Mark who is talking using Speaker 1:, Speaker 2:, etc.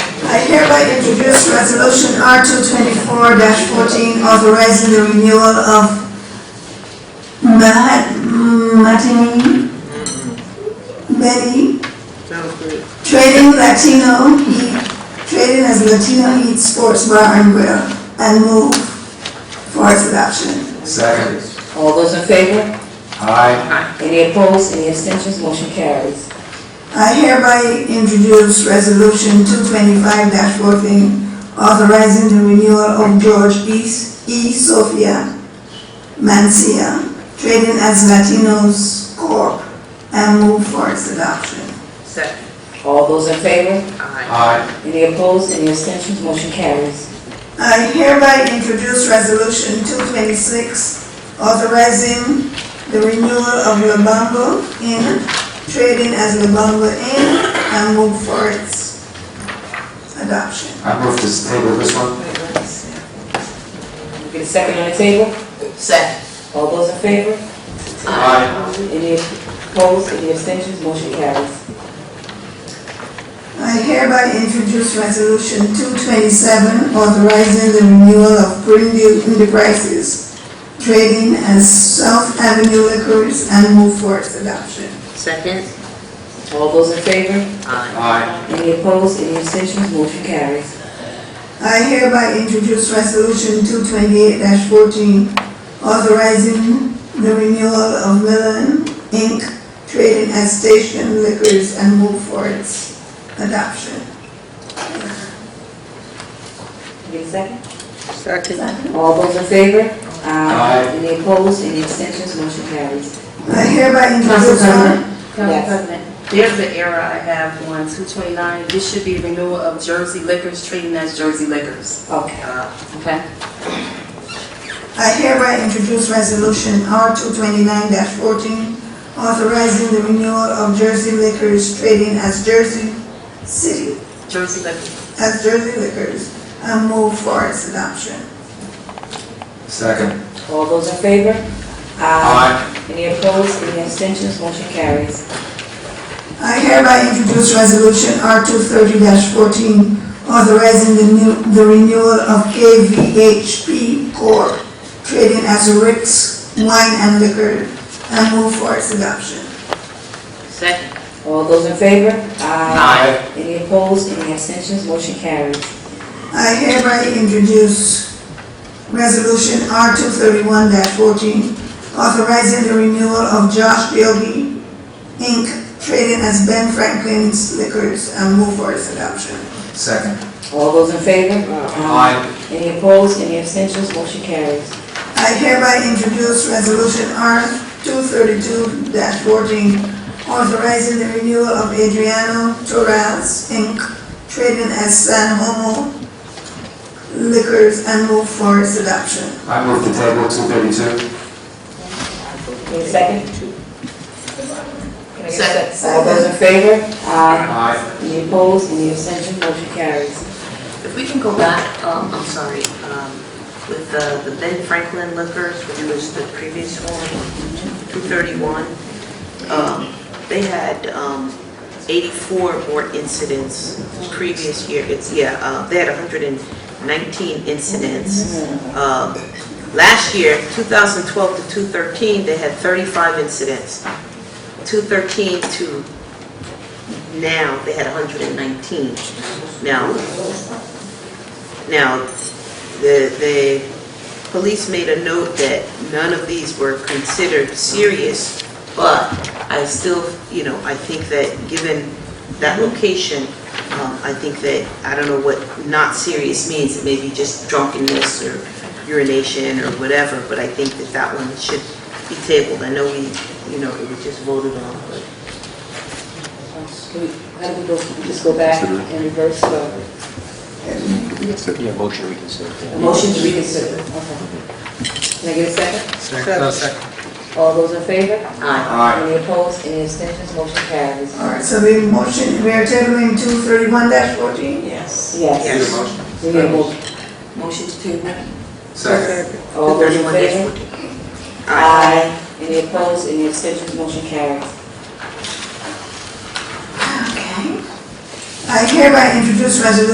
Speaker 1: I hereby introduce Resolution R two twenty-four fourteen, authorizing the renewal of Mahat, Matini, Betty,
Speaker 2: Sounds good.
Speaker 1: trading Latino, Heat- trading as Latino Heat Sports Bar and Grill, and move for its adoption.
Speaker 3: Second.
Speaker 4: All those in favor?
Speaker 3: Aye.
Speaker 4: Any opposed? Any abstentions? Motion carries.
Speaker 1: I hereby introduce Resolution two twenty-five fourteen, authorizing the renewal of George E. S- E. Sophia Mancia, trading as Latinos Corp., and move for its adoption.
Speaker 2: Second.
Speaker 4: All those in favor?
Speaker 2: Aye.
Speaker 3: Aye.
Speaker 4: Any opposed? Any abstentions? Motion carries.
Speaker 1: I hereby introduce Resolution 226, authorizing the renewal of Lubango Inn, trading as Lubango Inn, and move for its adoption.
Speaker 3: I move to table this one.
Speaker 4: Get a second on the table?
Speaker 2: Second.
Speaker 4: All those in favor?
Speaker 3: Aye.
Speaker 4: Any opposed? Any abstentions? Motion carries.
Speaker 1: I hereby introduce Resolution 227, authorizing the renewal of Greenview Enterprises, trading as South Avenue Liquors, and move for its adoption.
Speaker 2: Second.
Speaker 4: All those in favor?
Speaker 2: Aye.
Speaker 3: Aye.
Speaker 4: Any opposed? Any abstentions? Motion carries.
Speaker 1: I hereby introduce Resolution 228-14, authorizing the renewal of Millen Inc., trading as Station Liquors, and move for its adoption.
Speaker 4: Get a second?
Speaker 2: Second.
Speaker 4: All those in favor?
Speaker 3: Aye.
Speaker 4: Any opposed? Any abstentions? Motion carries.
Speaker 1: I hereby
Speaker 5: Council
Speaker 1: introduce...
Speaker 5: President, Council
Speaker 4: Yes.
Speaker 5: President, there's an error I have on two twenty-nine. This should be renewal of Jersey Liquors, treating as Jersey Liquors.
Speaker 4: Okay.
Speaker 2: Uh,
Speaker 5: Okay.
Speaker 1: I hereby introduce Resolution R 229-14, authorizing the renewal of Jersey Liquors, trading as Jersey City,
Speaker 5: Jersey Liquors.
Speaker 1: as Jersey Liquors, and move for its adoption.
Speaker 3: Second.
Speaker 4: All those in favor?
Speaker 3: Aye.
Speaker 4: Any opposed? Any abstentions? Motion carries.
Speaker 1: I hereby introduce Resolution R two thirty fourteen, authorizing the new, the renewal of KVHP Corp., trading as Ritz Wine and Liquor, and move for its adoption.
Speaker 2: Second.
Speaker 4: All those in favor?
Speaker 3: Aye.
Speaker 4: Any opposed? Any abstentions? Motion carries.
Speaker 1: I hereby introduce Resolution R two thirty-one fourteen, authorizing the renewal of Josh Bilby, Inc., trading as Ben Franklin's Liquors, and move for its adoption.
Speaker 3: Second.
Speaker 4: All those in favor?
Speaker 3: Aye.
Speaker 4: Any opposed? Any abstentions? Motion carries.
Speaker 1: I hereby introduce Resolution R two thirty-two fourteen, authorizing the renewal of Adriano Torres, Inc., trading as San Homo Liquors, and move for its adoption.
Speaker 3: I move to table two thirty-two.
Speaker 4: Need a second? Can I get a
Speaker 2: Second.
Speaker 4: All those in favor?
Speaker 3: Aye.
Speaker 4: Any opposed? Any abstentions? Motion carries.
Speaker 2: If we can go back, um, I'm sorry, um, with uh, the Ben Franklin Liquors, which was the previous one, 231, um, they had um, 84 more incidents previous year. It's, yeah, uh, they had 119 incidents. Um, Last year, 2012 to 213, they had 35 incidents. 213 to now, they had 119. Now, now, the, the police made a note that none of these were considered serious, but I still, you know, I think that given that location, um, I think that, I don't know what not serious means, it may be just drunkenness or urination or whatever, but I think that that one should be tabled. I know we, you know, it was just voted on, but
Speaker 4: Can we- How do we go, we just go back and reverse the
Speaker 6: Yeah, motion reconsider.
Speaker 4: motion to reconsider? Okay. Can I get a second?
Speaker 3: Second.
Speaker 4: All those in favor?
Speaker 2: aye.
Speaker 3: Aye.
Speaker 4: Any opposed? Any abstentions? Motion carries.
Speaker 1: All right, so we motion, we are tabling two thirty-one fourteen.
Speaker 2: Yes.
Speaker 4: Yes.
Speaker 3: Need a motion?
Speaker 4: We need a motion.
Speaker 2: Motion to table.
Speaker 3: Second.
Speaker 4: All those in
Speaker 2: 231 dash
Speaker 4: favor?
Speaker 2: 14.
Speaker 4: Aye. Any opposed? Any abstentions? Motion carries.
Speaker 1: Okay. I hereby introduce resolution